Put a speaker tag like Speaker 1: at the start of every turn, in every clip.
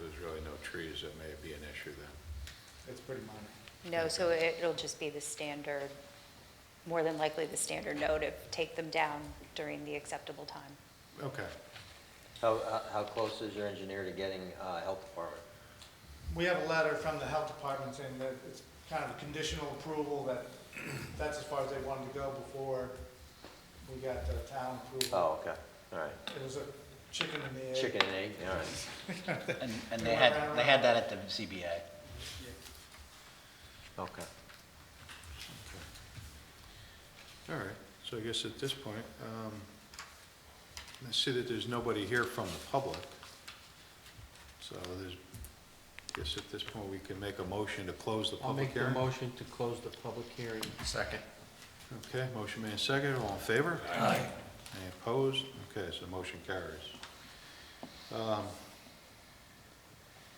Speaker 1: there's really no trees, that may be an issue then.
Speaker 2: It's pretty minor.
Speaker 3: No, so it- it'll just be the standard, more than likely the standard note of take them down during the acceptable time.
Speaker 1: Okay.
Speaker 4: How, how- how close is your engineer to getting uh, health department?
Speaker 2: We have a letter from the health department saying that it's kind of a conditional approval, that that's as far as they wanted to go before we got the town approval.
Speaker 4: Oh, okay, all right.
Speaker 2: It was a chicken and the egg.
Speaker 4: Chicken and egg, all right.
Speaker 5: And, and they had, they had that at the CBA.
Speaker 4: Okay.
Speaker 1: All right, so I guess at this point, um, I see that there's nobody here from the public. So there's, I guess at this point, we can make a motion to close the
Speaker 6: I'll
Speaker 1: public
Speaker 6: make the
Speaker 1: hearing.
Speaker 6: motion to close the public hearing.
Speaker 5: Second.
Speaker 1: Okay, motion made and seconded, all in favor? Aye. Any opposed? Okay, so motion carries. Um,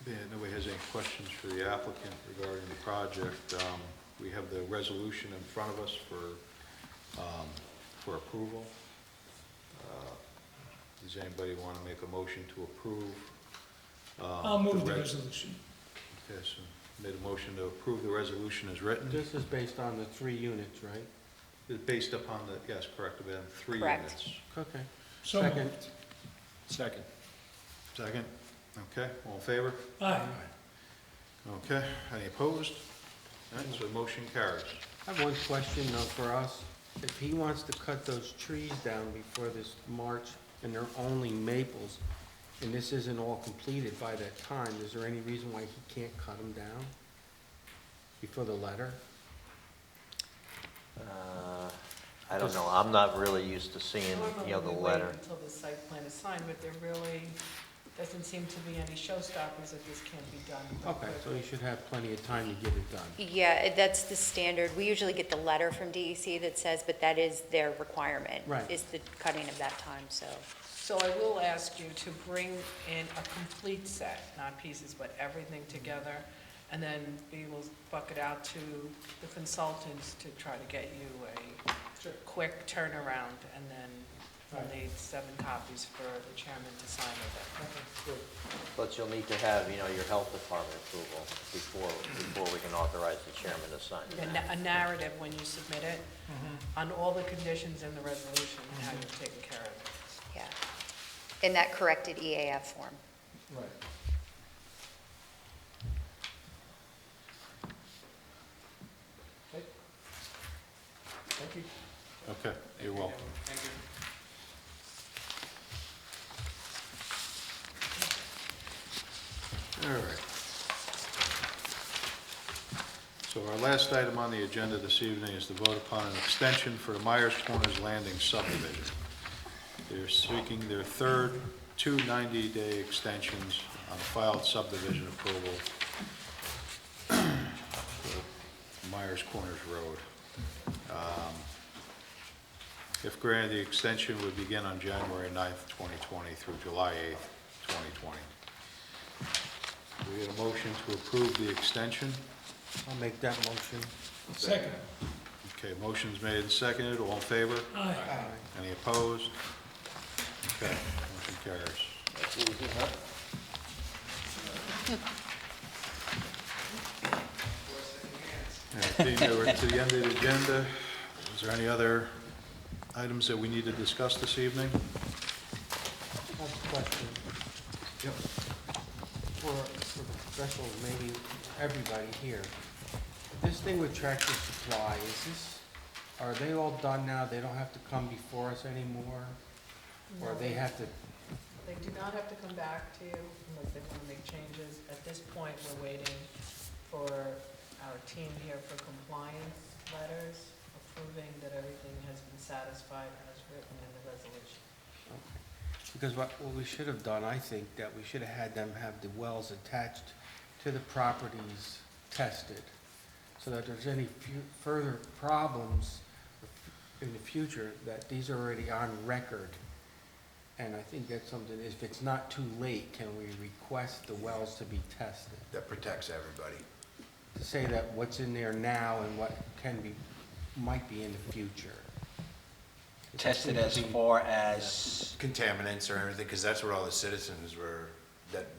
Speaker 1: Yeah, nobody has any questions for the applicant regarding the project. Um, We have the resolution in front of us for, um, for approval. Uh, Does anybody want to make a motion to approve? uh,
Speaker 7: I'll move the
Speaker 1: res-
Speaker 7: resolution.
Speaker 1: Okay, so made a motion to approve the resolution as written.
Speaker 6: This is based on the three units, right?
Speaker 1: It's Based upon the, yes, correct, we have three
Speaker 3: Correct.
Speaker 1: units.
Speaker 6: Okay.
Speaker 7: So
Speaker 6: Second.
Speaker 7: moved.
Speaker 5: Second.
Speaker 1: Second, okay, all in favor?
Speaker 7: Aye.
Speaker 1: Okay, any opposed? All right, so motion carries.
Speaker 6: I have one question though for us. If he wants to cut those trees down before this March and they're only maples, and this isn't all completed by that time, is there any reason why he can't cut them down? Before the letter?
Speaker 4: Uh, I don't know, I'm not really used to seeing, you know, the
Speaker 8: Normally, we
Speaker 4: letter.
Speaker 8: wait until the site plan is signed, but there really doesn't seem to be any showstoppers that this can't be done.
Speaker 6: Okay, so he should have plenty of time to get it done.
Speaker 3: Yeah, that's the standard. We usually get the letter from DEC that says, but that is their requirement.
Speaker 6: Right.
Speaker 3: Is the cutting of that time, so.
Speaker 8: So I will ask you to bring in a complete set, not pieces, but everything together, and then we will bucket out to the consultants to try to get you
Speaker 2: Sure.
Speaker 8: a quick turnaround, and then
Speaker 2: Right.
Speaker 8: we'll need seven copies for the chairman to sign of
Speaker 2: Okay, good.
Speaker 4: But you'll need to have, you know, your health department approval before, before we can authorize the chairman to sign
Speaker 8: it. A na- A narrative when you submit it, on all the conditions in the resolution, and how you've taken care of it.
Speaker 3: Yeah. In that corrected EAF form.
Speaker 2: Right. Okay. Thank you.
Speaker 1: Okay, you're welcome. All right. So our last item on the agenda this evening is to vote upon an extension for the Myers Corners Landing subdivision. They're seeking their third two 90-day extensions on filed subdivision approval for Myers Corners Road. Um, If granted, the extension would begin on January 9th, 2020 through July 8th, 2020. We get a motion to approve the extension.
Speaker 6: I'll make that motion.
Speaker 7: Second.
Speaker 1: Okay, motion's made and seconded, all in favor?
Speaker 7: Aye.
Speaker 1: Any opposed? Okay, motion carries. All right, Being over to the end of the agenda, is there any other items that we need to discuss this evening?
Speaker 6: I have a question.
Speaker 1: Yep.
Speaker 6: for, for special, maybe everybody here. This thing with Tractor Supply, is this, are they all done now? They don't have to come before us anymore? Or they have to,
Speaker 8: They do not have to come back to you unless they want to make changes. At this point, we're waiting for our team here for compliance letters approving that everything has been satisfied as written in the resolution.
Speaker 6: because what, what we should have done, I think, that we should have had them have the wells attached to the properties tested, so that there's any fu- further problems in the future, that these are already on record. And I think that's something, if it's not too late, can we request the wells to be tested?
Speaker 9: that protects everybody.
Speaker 6: To say that what's in there now and what can be, might be in the future.
Speaker 5: Tested as far as
Speaker 9: Contaminants or everything, because that's what all the citizens were, that